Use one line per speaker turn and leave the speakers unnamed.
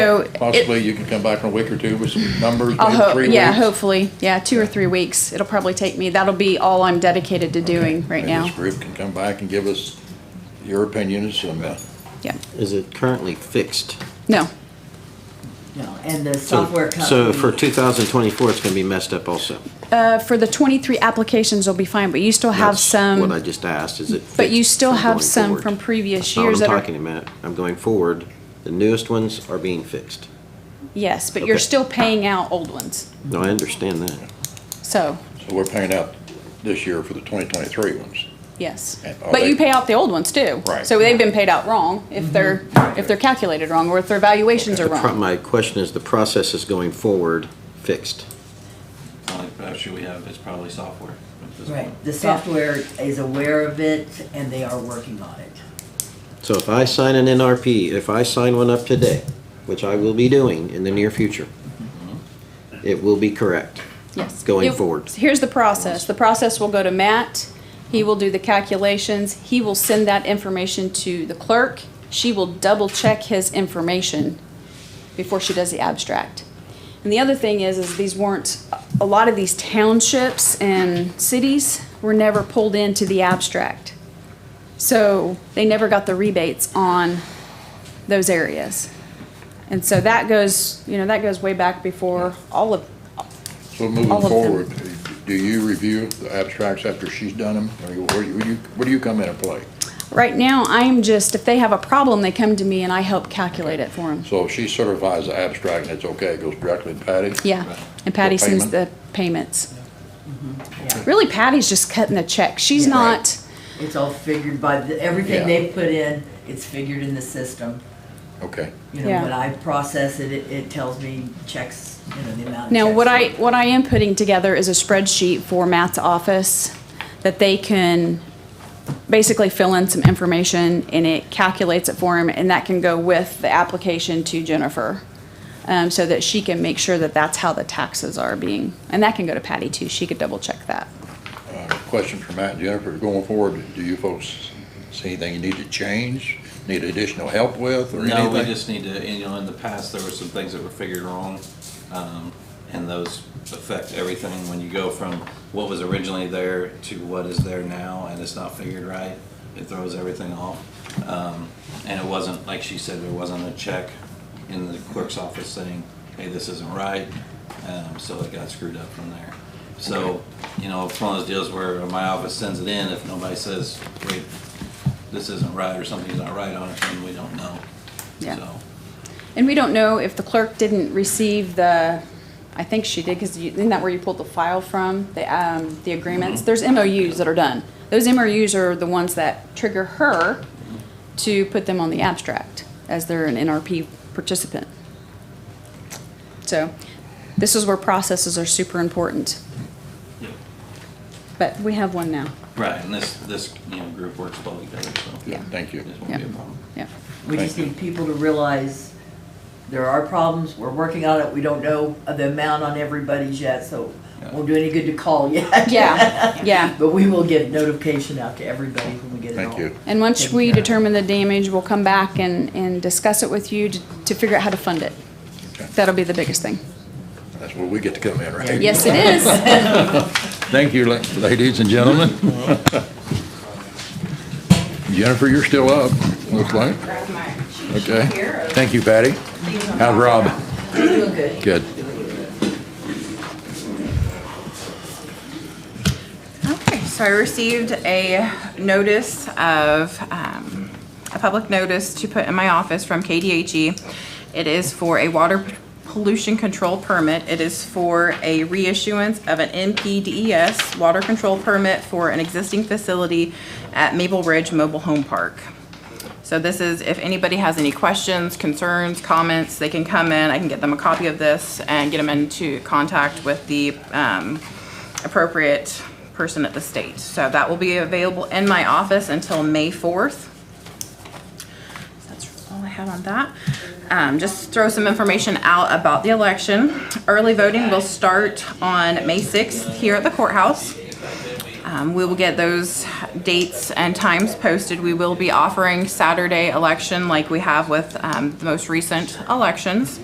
So it-
Possibly you can come back in a week or two with some numbers,
I'll
maybe
hope,
three weeks.
yeah, hopefully, yeah, two or three weeks. It'll probably take me, that'll be all I'm dedicated to doing right
Maybe
now.
This group can come back and give us your opinions and, uh,
Yeah,
Is it currently fixed?
no,
No, and the
So-
software company.
So for 2024, it's going to be messed up also.
uh, for the twenty-three applications, will be fine, but you still have
That's What I
some,
just asked, is it?
but you
fixed
still
from
have
going
some
forward?
from previous
That's not what
years that
I'm
are,
talking about. I'm going forward. The newest ones are being fixed.
yes, but you're
Okay.
still paying out old ones,
No, I understand that.
so,
so we're paying out this year for the 2023 ones.
yes.
And are
But
they-
you pay out the old ones too.
Right. Mm-hmm.
So they've been paid out wrong if they're, if they're calculated wrong or if their valuations are
The pro-
wrong.
My question is, the process is going forward fixed.
Only issue we have is probably software at this point.
Right, the software is aware of it and they are working on it.
So if I sign an NRP, if I sign one up today, which I will be doing in the near future,
Mm-hmm.
it will be correct.
Yes.
going
It-
forward.
Here's the process. The process will go to Matt. He will do the calculations. He will send that information to the clerk. She will double-check his information before she does the abstract. And the other thing is, is these weren't, a lot of these townships and cities were never pulled into the abstract. So they never got the rebates on those areas. And so that goes, you know, that goes way back before all of,
So
All
moving
of them.
forward, do you review the abstracts after she's done them? Or you- where do you, where do you come in and play?
Right now, I'm just, if they have a problem, they come to me and I help calculate it for them.
So if she certifies the abstract and it's okay, it goes directly to Patty?
Yeah, and Patty
uh, The
sends
payment?
the payments.
Yeah.
Really, Patty's just cutting the check. She's
Yeah.
not,
It's all figured by, the-
Yeah.
everything they've put in, it's figured in the system.
Okay.
You know,
Yeah.
when I process it, it, it tells me checks, you know, the amount of
now,
checks
what
that-
I, what I am putting together is a spreadsheet for Matt's office that they can basically fill in some information and it calculates it for him and that can go with the application to Jennifer. Um, so that she can make sure that that's how the taxes are being, and that can go to Patty too. She could double check that.
Uh, Question for Matt and Jennifer, going forward, do you folks see anything you need to change, need additional help with or
No,
anything?
we just need to, and, you know, in the past, there were some things that were figured wrong, um, and those affect everything when you go from what was originally there to what is there now, and it's not figured right, it throws everything off. Um, and it wasn't, like she said, there wasn't a check in the clerk's office saying, hey, this isn't right, um, so it got screwed up from there. So, you know, it's one of those deals where my office sends it in, if nobody says, wait, this isn't right, or something's not right on it, then we don't know.
Yeah.
So,
And we don't know if the clerk didn't receive the, I think she did, because isn't that where you pulled the file from, the, um, the agreements? There's MOUs that are done. Those MOUs are the ones that trigger her to put them on the abstract, as they're an NRP participant. So, this is where processes are super important, but we have one now,
Right, and this, this, you know, group works well together, so.
Yeah.
Thank you.
This won't be
Yeah.
a problem.
yeah.
We just
Thank you.
need people to realize there are problems, we're working on it, we don't know the amount on everybody's yet, so
Yeah.
won't do any good to call yet.
Yeah, yeah.
But we will get notification out to everybody when we get it all.
Thank you.
And once
Taken
we
care of.
determine the damage, we'll come back and, and discuss it with you to, to figure out how to fund it.
Okay.
That'll be the biggest thing.
That's where we get to come in, right?
Yes, it is.
Thank you, la- ladies and gentlemen. Jennifer, you're still up, looks like. Okay. Thank you, Patty. How's Rob?
Doing good.
Good.
Okay, so I received a notice of, um, a public notice to put in my office from KDHE. E. It is for a water pollution control permit. It is for a reissuance of an NPDES E water control permit for an existing facility at Maple Ridge Mobile Home Park. So this is, if anybody has any questions, concerns, comments, they can come in, I can get them a copy of this and get them into contact with the um, appropriate person at the state. So that will be available in my office until May 4th. That's all I have on that. Um, Just throw some information out about the election. Early voting will start on May 6th here at the courthouse. Um, we will get those dates and times posted. We will be offering Saturday election like we have with um, the most recent elections.